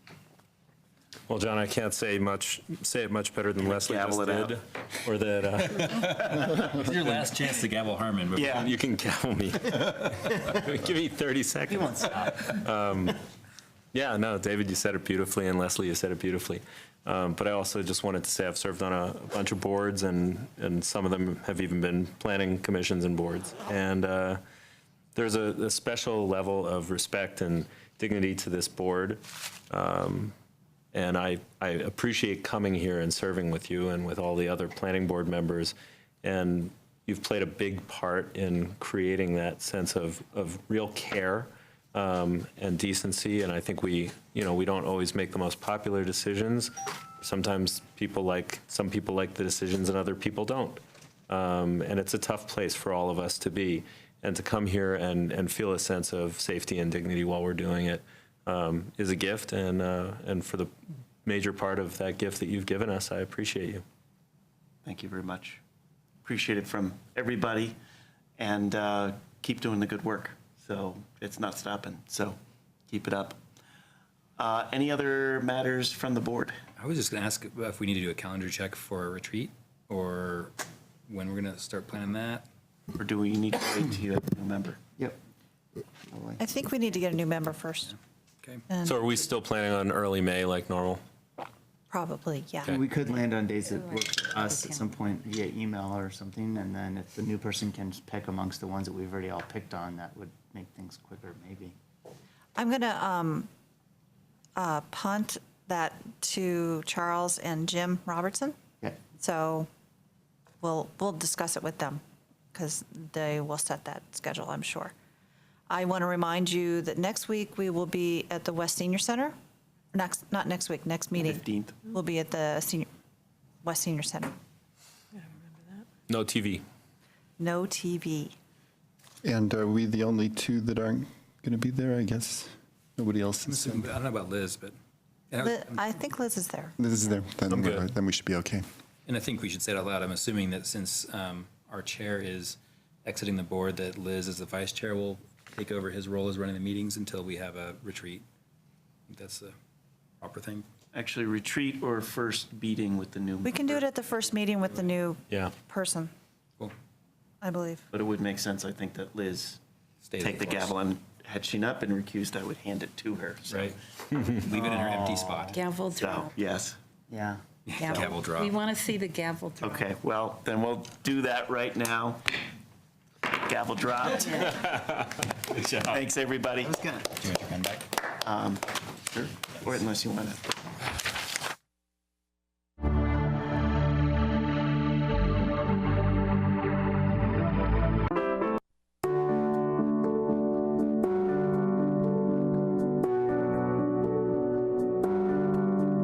Well, John, I can't say much, say it much better than Leslie just gavel it out? did. Or that, uh, It's your last chance to gavel Harmon. before- Yeah. you can gavel me. Give me 30 He seconds. Um, won't stop. Yeah, no, David, you said it beautifully, and Leslie, you said it beautifully. Um, But I also just wanted to say I've served on a bunch of boards, and, and some of them have even been planning commissions and boards. And uh, there's a a special level of respect and dignity to this board. Um, And I, I appreciate coming here and serving with you and with all the other planning board members. And you've played a big part in creating that sense of, of real care um, and decency. And I think we, you know, we don't always make the most popular decisions. Sometimes people like, some people like the decisions and other people don't. Um, And it's a tough place for all of us to be. And to come here and, and feel a sense of safety and dignity while we're doing it um, is a gift. And, uh, and for the major part of that gift that you've given us, I appreciate you. Thank you very much. Appreciate it from everybody, and uh, keep doing the good work. So it's not stopping, so keep it up. Uh, Any other matters from the board? I was just gonna ask if we need to do a calendar check for a retreat or when we're gonna start planning that. Or do we need to wait till you have a new member? Yep. I think we need to get a new member first, Okay. and So are we still planning on early May like normal? probably, yeah. We could land on days that work for us at some point via email or something, and then if the new person can just pick amongst the ones that we've already all picked on, that would make things quicker, maybe. I'm going to punt that to Charles and Jim Robertson. Yeah, So we'll, we'll discuss it with them because they will set that schedule, I'm sure. I want to remind you that next week we will be at the West Senior Center. Next, not next week, next meeting. 15th. We'll be at the senior, West Senior Center. No TV. No TV. And are we the only two that aren't going to be there, I guess? Nobody else I is. don't know about Liz, but, Li- and I think Liz is there. This is there, I'm then, we're- good. then we should be okay. I think we should say it out loud. I'm assuming that since um, our chair is exiting the board, that Liz as the vice chair will take over his role as running the meetings until we have a retreat. I think That's the proper thing. Actually, retreat or first meeting with the new member? We can do it at the first meeting with the new Yeah. person, Cool. I believe. But it would make sense, I think, that Liz Stay the take the course. gavel, and had she not been recused, I would hand it to her. So- Right. Leave it in her empty spot. Gavel throw. So, yes. yeah. Gavel drop. We want to see the gavel throw. Okay, well, then we'll do that right now. Gavel dropped. Thanks, everybody. good. Do you want your pen back? Or unless you want to.